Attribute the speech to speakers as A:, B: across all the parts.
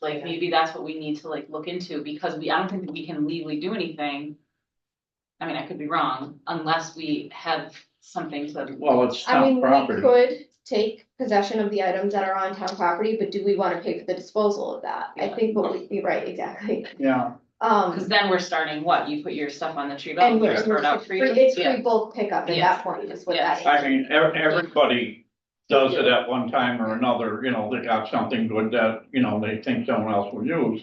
A: like,
B: Yeah.
A: maybe that's what we need to like look into, because we, I don't think that we can legally do anything. I mean, I could be wrong, unless we have something to,
C: Well, it's
B: I
C: town
B: mean, we
C: property.
B: could take possession of the items that are on town property, but do we wanna pay for the disposal of that? I
A: Yeah.
B: think what we, you're right, exactly.
C: Yeah,
A: because
B: Um,
A: then we're starting, what, you put your stuff on the tree belt,
B: and
A: you
C: yeah.
A: throw it out for you?
B: it's
A: Yeah.
B: free bulk pickup at
A: Yes.
B: that point, is what
A: Yes.
B: that
C: I
B: is.
C: mean, ev- everybody does it at one time or another, you know, they got something good that, you know, they think someone else will use.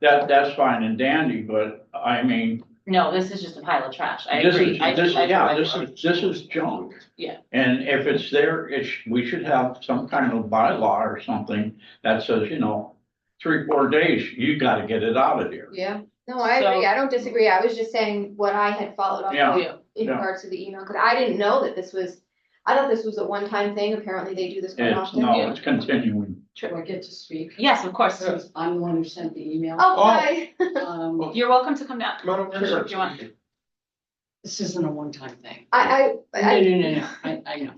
C: That, that's fine and dandy, but I mean,
A: No, this is just a pile of trash, I
C: this
A: agree.
C: is,
A: I-
C: this,
A: I-
C: yeah,
A: I-
C: this is, this is junk.
A: Yeah.
C: And if it's there, it's, we should have some kind of bylaw or something that says, you know, three, four days, you gotta get it out of here.
B: Yeah, no, I
A: So-
B: agree, I don't disagree, I was just saying what I had followed up
C: Yeah.
B: on
A: Yeah.
B: in
C: Yeah.
B: regards to the email, cause I didn't know that this was, I thought this was a one-time thing, apparently they do this quite
C: It's,
B: often.
C: no, it's continuing.
D: Do I get to speak?
A: Yes, of course,
D: Because I'm the one who sent the email.
B: Oh,
C: Oh.
B: hi,
D: Um,
A: you're welcome to come down,
E: Come on over
A: Sure,
E: here.
A: do you want-
D: This isn't a one-time thing.
B: I, I,
D: No,
B: I,
D: no, no, no, I, I know.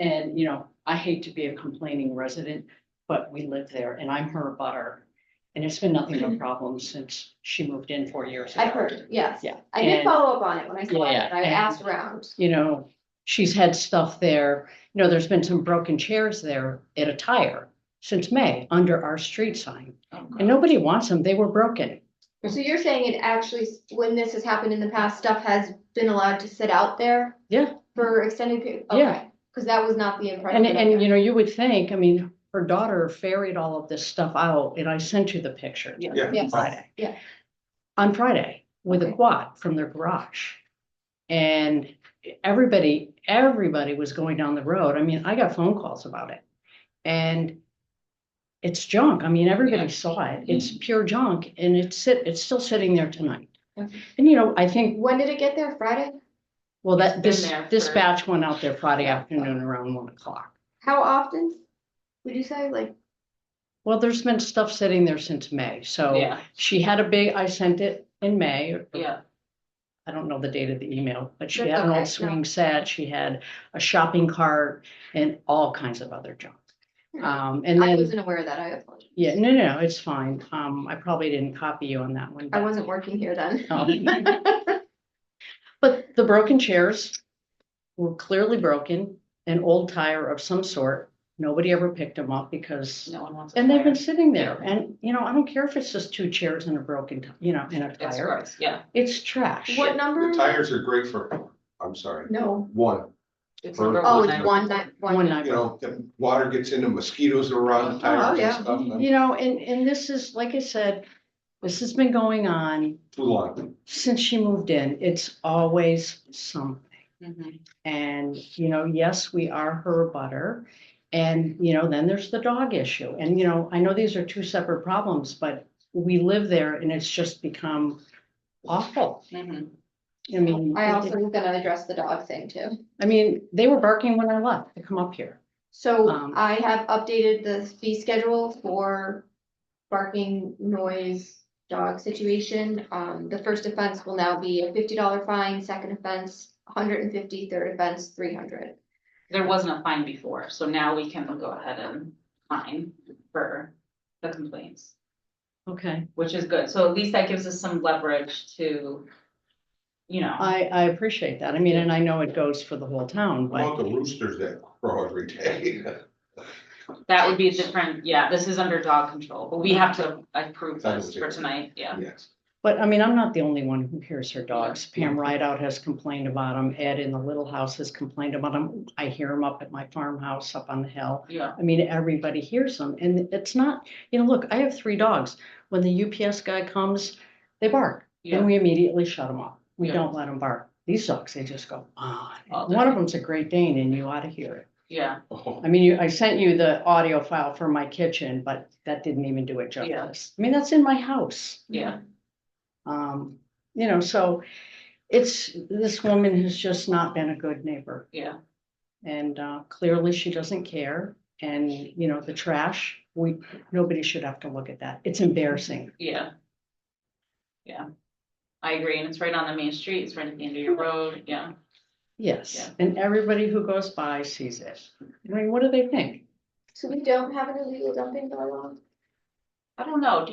D: And, you know, I hate to be a complaining resident, but we live there and I'm her butter. And it's been nothing but problems since she moved in four years ago.
B: I heard, yes,
D: Yeah.
B: I did
D: and-
B: follow up on it when I saw it,
D: Yeah,
B: I
D: and-
B: asked around.
D: you know, she's had stuff there. You know, there's been some broken chairs there at a tire since May under our street sign.
B: Oh,
D: And nobody wants them. They were broken.
B: So you're saying it actually, when this has happened in the past, stuff has been allowed to sit out there?
D: Yeah.
B: For extended period?
D: Yeah.
B: Cause that was not the impression.
D: And,
B: I
D: and
B: got.
D: you know, you would think, I mean, her daughter ferried all of this stuff out and I sent you the picture.
A: Yeah.
E: Yeah.
B: Yes.
D: Friday.
B: Yeah.
D: On Friday with a
B: Okay.
D: quad from their garage. And everybody, everybody was going down the road. I mean, I got phone calls about it. And it's junk. I mean, everybody saw
A: Mm-hmm.
D: it. It's pure junk and it's sit, it's still sitting there tonight.
B: Okay.
D: And you know, I think,
B: When did it get there? Friday?
D: well,
A: It's been
D: that this,
A: there
D: this
A: for-
D: batch went out there Friday afternoon around one o'clock.
B: How often? Would you say like,
D: Well, there's been stuff sitting there since May, so
A: yeah,
D: she had a big, I sent it in May.
A: yeah,
D: I don't know the date of the email, but she
B: That's
D: had an
B: okay, no.
D: old swing set, she had a shopping cart and all kinds of other junk.
B: Hmm.
D: Um, and
B: I
D: then,
B: wasn't aware of that. I apologize.
D: yeah, no, no, it's fine. Um, I probably didn't copy you on that one.
B: I
D: but-
B: wasn't working here then.
D: Oh. But the broken chairs were clearly broken, an old tire of some sort. Nobody ever picked them up because
A: no one wants. a
D: And they've been
A: fire.
D: sitting there and, you know, I don't care if it's just two chairs and a broken, t- you know, and a
A: It's
D: tire.
A: gross, yeah.
D: It's trash.
B: What number?
E: The
B: is it?
E: tires are great for, I'm sorry,
B: No.
E: one,
A: It's
E: Or-
A: number
B: Oh,
A: one.
B: it's one night,
D: One
B: one night.
D: night.
E: you know, the water gets into mosquitoes around the tires
B: Oh, yeah.
E: and stuff, and
D: You know, and, and this is, like I said, this has been going on
E: too long.
D: since she moved in. It's always something.
A: Mhm.
D: And, you know, yes, we are her butter. And, you know, then there's the dog issue. And, you know, I know these are two separate problems, but we live there and it's just become awful.
A: Mhm.
D: I mean.
B: I
D: it-
B: also was gonna address the dog thing too.
D: I mean, they were barking when I left to come up here.
B: So
D: Um,
B: I have updated the fee schedule for barking noise dog situation. Um, the first offense will now be a fifty dollar fine, second offense, 150, third offense, three hundred.
A: There wasn't a fine before, so now we can go ahead and fine for the complaints,
D: Okay.
A: which is good. So at least that gives us some leverage to, you know,
D: I, I appreciate that. I mean, and I know it goes for the whole town,
E: What About
D: but
E: the roosters that crow every day.
A: that would be a different, yeah, this is under dog control, but we have to approve this for tonight, yeah.
E: Yes,
D: but I mean, I'm not the only one who hears her dogs. Pam Rideout has complained about them. Ed in the little house has complained about them. I hear them up at my farmhouse up on the hill.
A: Yeah,
D: I mean, everybody hears them and it's not, you know, look, I have three dogs. When the UPS guy comes, they bark and
A: yeah,
D: we immediately shut them up. We
A: Yeah.
D: don't let them bark. These dogs, they just go on.
A: All
D: One of
A: day.
D: them's a Great Dane and you ought to hear it.
A: yeah,
E: oh,
D: I mean, you, I sent you the audio file for my kitchen, but that didn't even do it
A: Yeah.
D: justice. I mean, that's in my house.
A: yeah.
D: Um, you know, so it's, this woman has just not been a good neighbor.
A: Yeah.
D: And, uh, clearly she doesn't care. And, you know, the trash, we, nobody should have to look at that. It's embarrassing.
A: Yeah. Yeah. I agree, and it's right on the main street, it's right at the end of your road, yeah.
D: Yes.
A: Yeah.
D: And everybody who goes by sees it. I mean, what do they think?
B: So we don't have an illegal dumping bylaw?
A: I don't know, do you